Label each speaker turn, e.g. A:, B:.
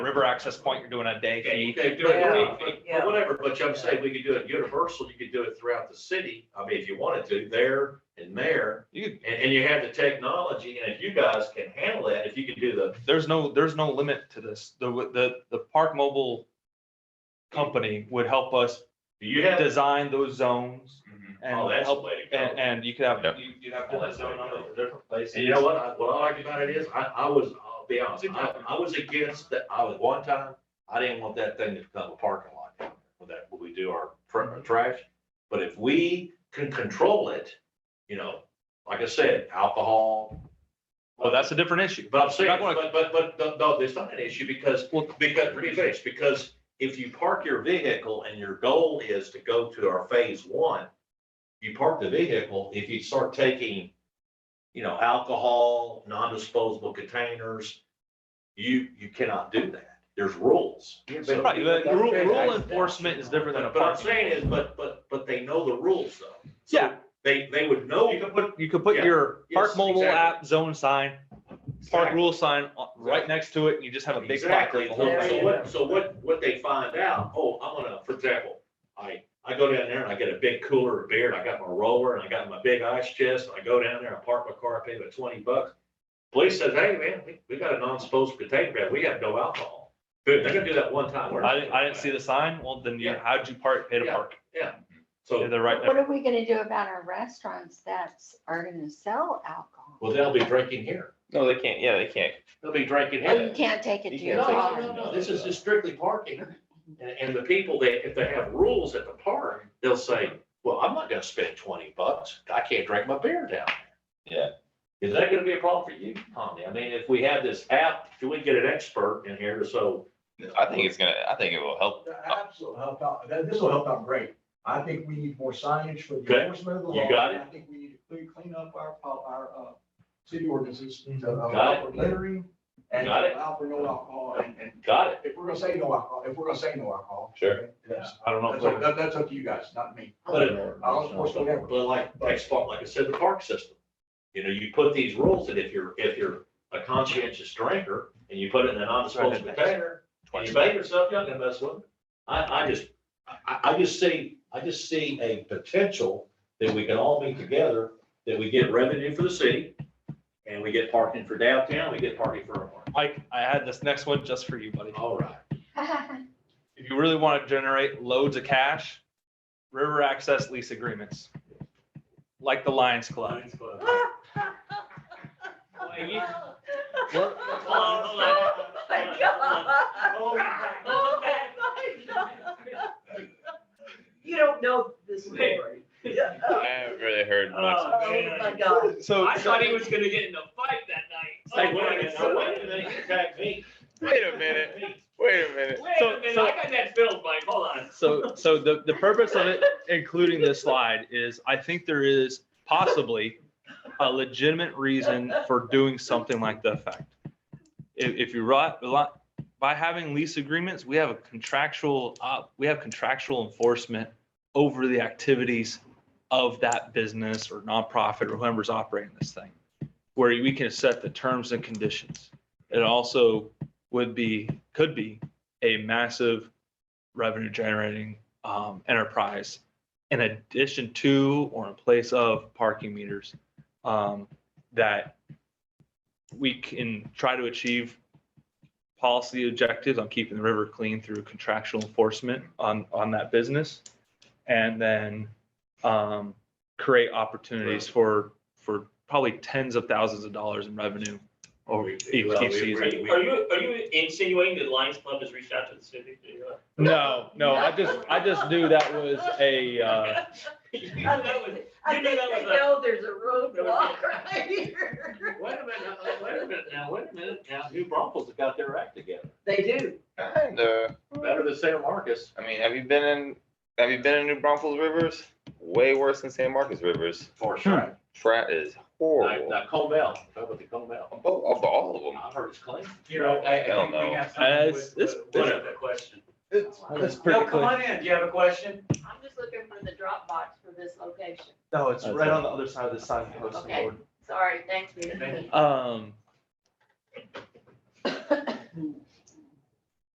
A: river access point, you're doing a day
B: Okay, you
A: fee.
B: could do it,
C: Yeah.
B: I mean,
C: Yeah.
B: but whatever, but I'm saying we could do it universal, you could do it throughout the city, I mean, if you wanted to, there and there.
A: You could-
B: And, and you have the technology, and if you guys can handle that, if you could do the,
A: There's no, there's no limit to this. The, the, the Park Mobile company would help us
B: do you have?
A: design those zones
B: Oh,
A: and
B: that's the
A: help,
B: way to
A: and,
B: go.
A: and you could have,
D: Yep.
A: you- you'd have different zone numbers for different places.
B: And you know what, I- what I like about it is, I, I was, I'll be honest, I, I was against that, I was one time, I didn't want that thing to become a parking lot. down there With that, when we do our pr-
A: Mm-hmm.
B: trash, but if we can control it, you know, like I said, alcohol.
A: Well, that's a different issue.
B: But I'm saying,
A: Not gonna-
B: but, but, but, no, no, it's not an issue because,
A: Well-
B: because, let me finish, because if you park your vehicle and your goal is to go to our phase one, you park the vehicle, if you start taking, you know, alcohol, non-disposable containers, you, you cannot do that. There's rules.
E: Yeah, but-
B: So-
A: Right, the
E: but-
A: rule, rule enforcement is different than a
B: But what I'm
A: parking.
B: saying is, but, but, but they know the rules though. So
A: Yeah.
B: They, they would know.
A: You could put, you could put
B: Yeah.
A: your Park
B: Yes,
A: Mobile
B: exactly.
A: app zone sign, park
B: Exactly.
A: rule sign uh, right next to it, and you just have a big plaque.
B: Exactly.
A: with the
B: So
A: whole
C: Yeah.
A: thing.
B: so what, so what, what they find out, oh, I'm gonna, for example, I, I go down there and I get a big cooler of beer and I got my roller and I got my big ice chest. and I go down there, I park my car, I pay about twenty bucks. Police says, hey, man, we, we got a non-disposable container, man. we have no alcohol. Dude, they're gonna do that one time. We're not
A: I didn't, I didn't see
B: doing
A: the sign, well, then you,
B: Yeah.
A: how'd you park, pay to
B: Yeah.
A: park?
B: that. So,
A: They're right
C: What
A: there.
C: are we gonna do about our restaurants that are gonna sell alcohol?
B: well, they'll be drinking here.
D: No, they can't, yeah, they can't.
B: They'll be drinking
C: Oh, you
B: here.
C: can't take it to
D: You
C: your
B: No,
D: can't.
B: no,
C: car.
B: no, no, this is just strictly parking. And, and the people that, if they have rules at the park, they'll say, well, I'm not gonna spend twenty bucks. I can't drink my beer down
D: Yeah.
B: there. Yeah. Is that gonna be a problem for you, Tommy? I mean, if we have this app, can we get an expert in here to so?
D: I think it's gonna, I think it will help.
E: Absolutely, help out, That- this will help out great. I think we need more signage for the
B: Okay.
E: enforcement of the
B: You
E: law.
B: got it.
E: I think we need to clean, clean up our, pol- our, uh, city ordinances to
B: Got
E: allow for littering and
B: Got it.
E: allow for no alcohol and, and
B: Got it.
E: if we're gonna say no alcohol, if we're gonna say no alcohol.
D: Sure.
E: That's,
A: I don't know. if
E: that's
A: they're-
E: up- that- that's up to you guys, not me.
B: But uh,
E: I'll enforce whatever.
B: But like, next part, like I said, the park system. You know, you put these rules that if you're, if you're a conscientious drinker and you put it in a non-disposable container, And you make yourself young and mess with it. I, I just, I- I, I just see, I just see a potential that we can all meet together, that we get revenue for the city. And we get parking for downtown, we get parking for our park.
A: Mike, I had this next one just for you, buddy.
B: All right.
A: If you really want to generate loads of cash, river access lease agreements. Like the Lions Club. Look,
F: You don't know this story.
D: I haven't really heard much.
F: Oh, my God.
A: So,
G: I thought he was gonna get in a fight that night. Oh,
B: Hey, wait a minute, now, wait a minute, you attacked me.
D: Wait a minute, wait a minute.
G: Wait
A: So-
G: a minute,
A: so-
G: I got that filled, Mike, hold on.
A: so, so the, the purpose of it, including this slide, is I think there is possibly a legitimate reason for doing something like the effect. If, if you right, a lot, by having lease agreements, we have a contractual, uh, we have contractual enforcement over the activities of that business or nonprofit or whoever's operating this thing, where we can set the terms and conditions. It also would be, could be a massive revenue generating, um, enterprise in addition to or in place of parking meters, um, that we can try to achieve policy objectives on keeping the river clean through contractual enforcement on, on that business. And then, um, create opportunities for, for probably tens of thousands of dollars in revenue over each each
G: Are
A: season.
G: you, are you, are you insinuating that Lions Club has reached out to the city?
A: No, no, I just, I just knew that was a, uh,
G: You knew
F: I
G: that was-
F: think they know there's a roadblock right here.
B: Wait a minute, now, wait a minute, now, wait a minute, now, New Braunfels have got their act together,
F: They do.
D: And, uh,
B: better than San Marcos.
D: I mean, have you been in, have you been in New Braunfels Rivers? Way worse than San Marcos Rivers.
B: For sure.
D: Frat is
B: Now,
D: horrible.
B: now Colmell, talk about the Colmell,
D: Of both- of all of them.
B: I heard it's clean.
E: You know, I,
D: I don't know.
A: Uh, it's- it's-
G: What a question.
E: It's,
A: it's pretty clean.
E: in, do you have a question?
H: I'm just looking for the Dropbox for this location.
A: No, it's
D: That's
A: right
D: it.
A: on the other side of the signpost.
H: Okay.
A: Lord.
H: Sorry, thanks,
B: Thank
H: Peter.
A: Um,